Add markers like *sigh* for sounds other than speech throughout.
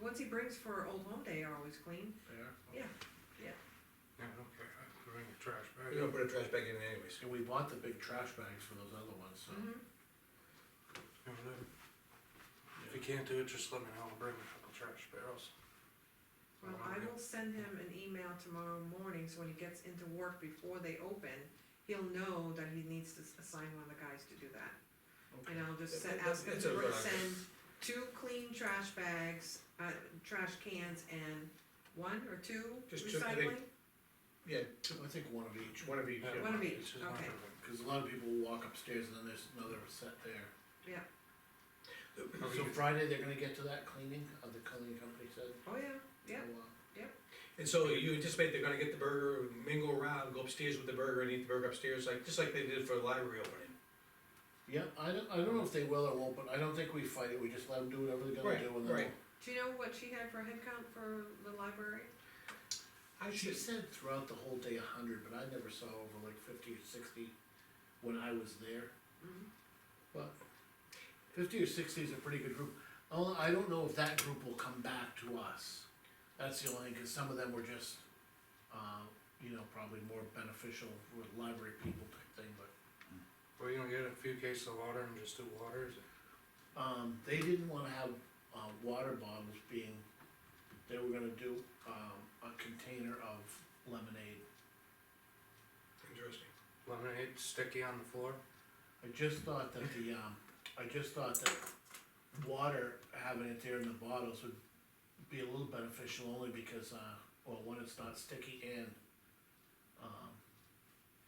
ones he brings for Old Home Day are always clean. Yeah. Yeah, yeah. Yeah, okay, I bring the trash We're bag. gonna put a trash bag in anyways. And we bought the big trash bags for those other ones, so. Mhm. Yeah, whatever. If you can't do it, just let me know, I'll bring a couple trash barrels. Well, I will send him an email tomorrow morning, so when he gets into work before they open, he'll know that he needs to s- assign one of the guys to do that. And I'll just set, ask him It's to a bring- good idea. send two clean trash bags, uh, trash cans and one or two Just two, I think. recycling? Yeah, I think one of each, each one of each. Yeah, One of each, it's just not okay. gonna- cause a lot of people walk upstairs and then there's another set there. Yeah, Probably So good. Friday, they're gonna get to that cleaning, of the cleaning company said. oh yeah, yeah, So, uh, And so you anticipate they're gonna get the burger, mingle around, go upstairs with the burger and eat the burger upstairs, like, just like they did for the library opening. Yeah, I don't, I don't know if they will or won't, but I don't think we fight it, we just let them do whatever they're gonna Right, do and then. right. do you know what she had for head count for the library? I She should, said throughout the whole day a hundred, but I never saw over like fifty or sixty when I was there. Mhm. But fifty or sixty is a pretty good group, although I don't know if that group will come back to us. That's the only, cause some of them were just, uh, you know, probably more beneficial with library people type thing, but. Well, you don't get a few cases of water and just do water, is it? Um, they didn't wanna have, uh, water bottles being, they were gonna do, um, a container of lemonade. interesting. Lemonade sticky on the floor? I just thought that the, um, I just thought that water, having it there in the bottles would be a little beneficial only because, uh, well, one, it's not sticky and, um,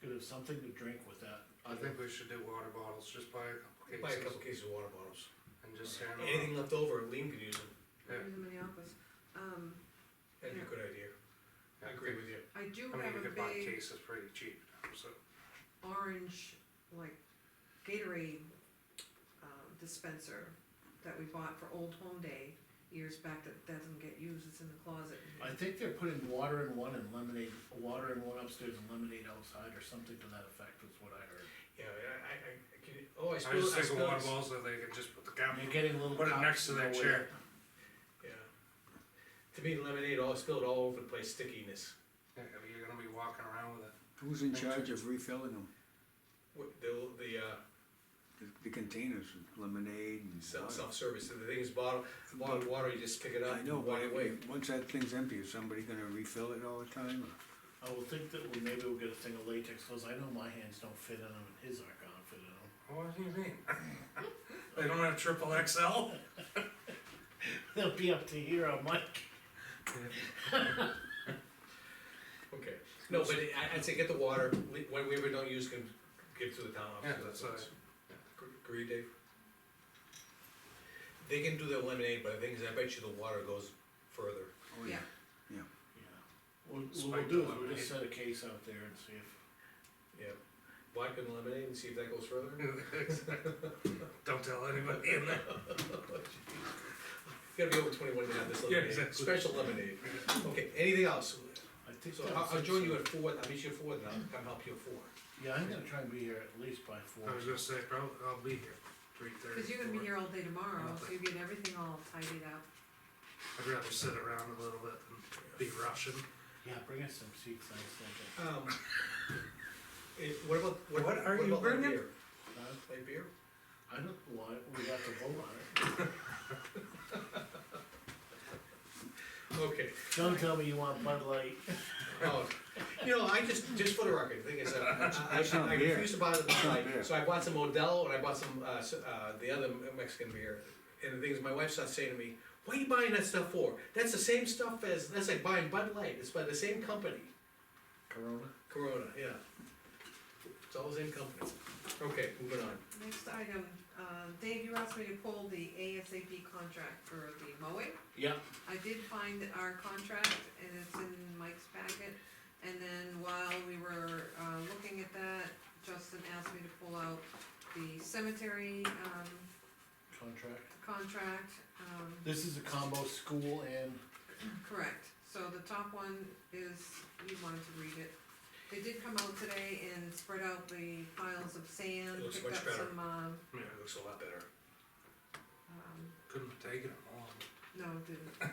could have something to drink with that. I think we should do water bottles, just buy a couple cases. Buy a couple cases of water bottles. And just hand them out. Anything left over, Lean could use them. Yeah. In Minneapolis. Um, That'd be a good idea. I agree with you. I do I mean, have a you could buy big cases pretty cheap now, so. orange, like Gatorade um, dispenser that we bought for Old Home Day years back that doesn't get used, it's in the closet. I think they're putting water in one and lemonade, water in one upstairs and lemonade outside or something to that effect is what I heard. Yeah, I, I, I, I can, oh, I I just spilled, I think of spilled. water bottles, that they can just put the cap, You're getting a little. put it cop- next to that no way. chair. Yeah. To me, lemonade all spilled all over the place, stickiness. Yeah, I mean, you're gonna be walking around with it. Who's in charge of refilling them? What, the, the, uh, The- The containers, with lemonade and self, water? self-service, the thing is bottled, bottled water, you just pick it up I and know, walk but away. if- once that thing's empty, is somebody gonna refill it all the time? or- I will think that, well, maybe we'll get a thing of latex, cause I know my hands don't fit in them and his aren't gonna fit in them. *laughs* Oh, What do you mean? *laughs* They don't have triple XL? *laughs* They'll be up to here on Mike. Okay, no, but I, I'd say get the water, we- when we ever don't use, can give to the town office. Yeah, that's what right. it's- Agree, Dave? They can do their lemonade, but the thing is, I bet you the water goes further. Oh, Yeah. What what we'll Spike do is the we'll lemonade. just set a case out there and see if, Yeah. Vodka and lemonade and see if that goes further. Don't tell anybody in there. You gotta be over twenty-one to have this Yeah, lemonade, exactly. special lemonade. Okay, anything else? I think. So that I'll, I'll was join it. you at four, I'll meet you at four, and I'll come help you at four. Yeah, I'm gonna try and be here at least by four. I was gonna say, probably, I'll be here, three Cause you're gonna be here all day tomorrow, so you get everything all tidied up. I'd rather sit around a little bit than be rushing. Yeah, bring us some seats, I was thinking. Um, eh, what about, what What about, are what you about light bringing? beer? Huh? Light beer? I don't, why, we have to vote on it. Okay, Don't tell me you want Bud Light. oh, you know, I just, just for the record, the thing is, uh, I, *laughs* That's I, not I beer. refused to buy the That's not Bud Light, beer. so I bought some Modelo and I bought some, uh, s- uh, the other Mexican beer. And the thing is, my wife starts saying to me, what are you buying that stuff for? That's the same stuff as, that's like buying Bud Light, it's by the same company. Corona? Corona, yeah. It's all the same company. Okay, moving on. Next item, uh, Dave, you asked me to pull the ASAP contract for the mowing. Yeah. I did find our contract and it's in Mike's packet. And then while we were, uh, looking at that, Justin asked me to pull out the cemetery, um, Contract. contract, um, This is a combo school and, Correct, so the top one is, you wanted to read it. They did come out today and spread out the piles of sand, It looks picked much up better. some, um, Yeah, It looks a lot better. um, couldn't have taken it long. no, it didn't.